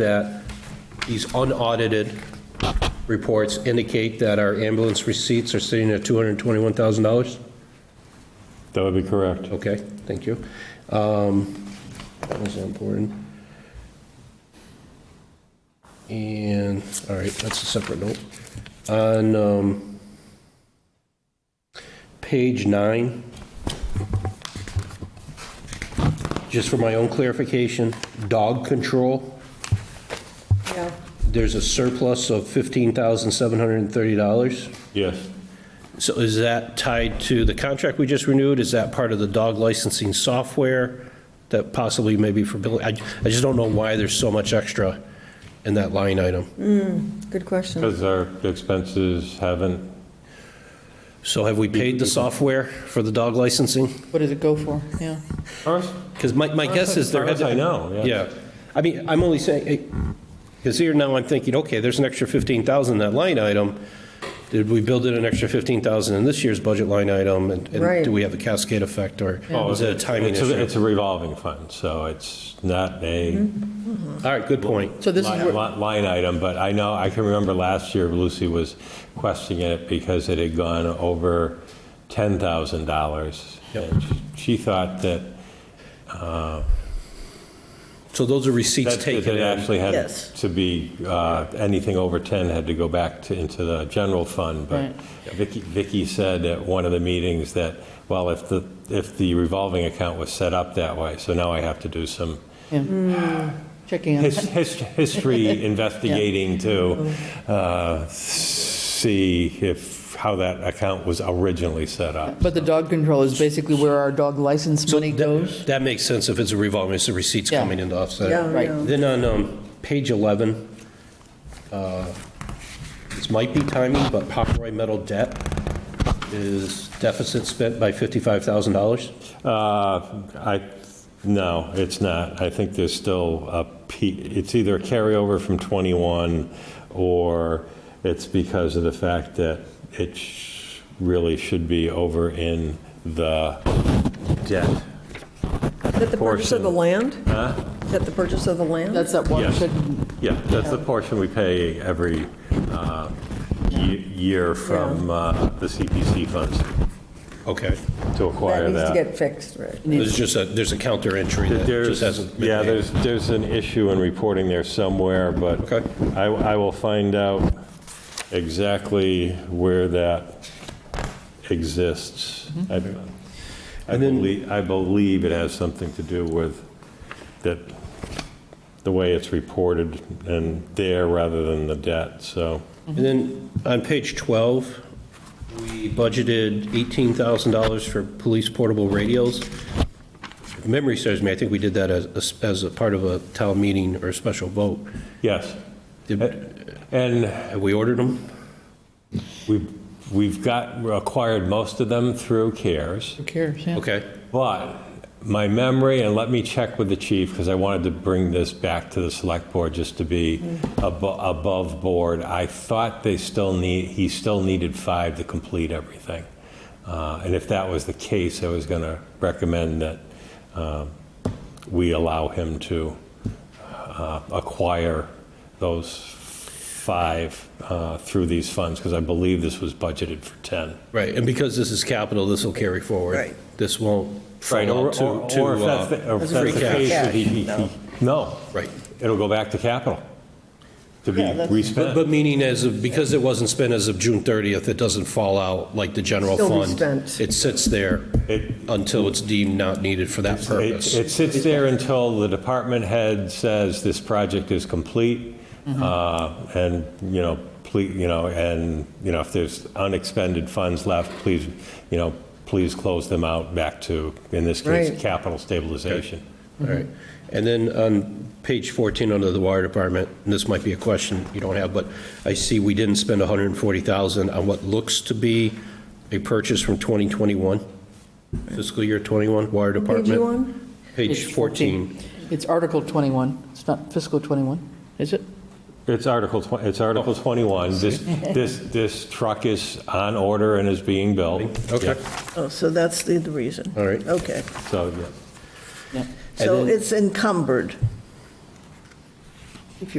that these unaudited reports indicate that our ambulance receipts are sitting at $221,000? That would be correct. Okay, thank you. Um, That was important. And, all right, that's a separate note. On um, page nine, just for my own clarification, dog control, Yeah, there's a surplus of $15,730. Yes. So is that tied to the contract we just renewed? Is that part of the dog licensing software that possibly maybe for Billy? I, I just don't know why there's so much extra in that line item. good question. Because our expenses haven't, So have we paid the software for the dog licensing? What does it go for? Yeah. ours, Because my, my guess is there had ours to. I know, Yeah. yeah. I mean, I'm only saying, because here now I'm thinking, okay, there's an extra 15,000 in that line item. Did we build in an extra 15,000 in this year's budget line item? And and Right. do we have a cascade effect or Oh, is it a timing it's a- issue? It's a revolving fund, so it's not a Mm-hmm. All right, good point. So this is li- where, li- line item, but I know, I can remember last year Lucy was questioning it because it had gone over $10,000. And she- She thought that So those are receipts That taken that in. actually had Yes. to be, uh, anything over 10 had to go back to, into the general fund. But Right. Vicky, Vicky said at one of the meetings that, well, if the, if the revolving account was set up that way, so now I have to do some Hmm. checking on, his, his, history investigating to, Mm-hmm. uh, see if, how that account was originally set up. But the dog control is basically where our dog license money goes? That makes sense if it's a revolving, it's the receipts Yeah. coming in to offset. Yeah, it. Right. yeah. Then on um, page 11, uh, this might be timing, but Pomeroy Metal debt is deficit spent by $55,000. Uh, I, no, it's not. I think there's still a, P- it's either a carryover from '21, or it's because of the fact that it sh- really should be over in the debt. is that the purchase of the land? Is that the purchase of the land? That's that Yes. watershed, Yeah, that's the portion we pay every uh, ye- year from uh, the CPC funds Okay. to acquire needs that. to get fixed, right? There's just a, there's a counter entry that just There's, hasn't been yeah, made. there's, there's an issue in reporting there somewhere, but Okay. I, I will find out exactly where that exists. Mm-hmm. I I believe, I believe it has something to do with that, the way it's reported and there rather than the debt, so. And then on page 12, we budgeted $18,000 for police portable radios. If Memory serves me, I think we did that as, as a part of a town meeting or a special vote. Yes, Uh, Did- and Have we ordered them? we've, we've got, acquired most of them through CARES. who cares, yeah. Okay, But my memory, and let me check with the chief, because I wanted to bring this back to the select board just to be abo- above board. I thought they still need, he still needed five to complete everything. Uh, And if that was the case, I was going to recommend that um, we allow him to uh, acquire those five uh, through these funds, because I believe this was budgeted for 10. right, and because this is capital, this will carry forward. Right. This won't Right, fall or, out to, or- to, or if that's uh, the, or if that's free the cash. case, that he, he- Cash, he- no. Right. It'll go back to capital to be Yeah, that's- but, respent. but meaning as of, because it wasn't spent as of June 30th, it doesn't fall out like the general Still be fund. spent. It sits there It- until it's deemed not needed for that It purpose. it sits there until the department head says this project is complete. Mm-hmm. uh, And, you know, please, you know, and, you know, if there's unexpended funds left, please, you know, please close them out back to, in this case, Right. capital stabilization. All right. And then on page 14 under the wire department, and this might be a question you don't have, but I see we didn't spend 140,000 on what looks to be a purchase from 2021, fiscal year 21, wire department. Page you on? Page 14. It's Article 21, it's not fiscal 21, is it? It's Article, twen- it's Article 21. This, this, this truck is on order and is being built. Okay, Oh, so that's the the reason. all right. Okay, So, yeah. Yeah. so then- it's encumbered.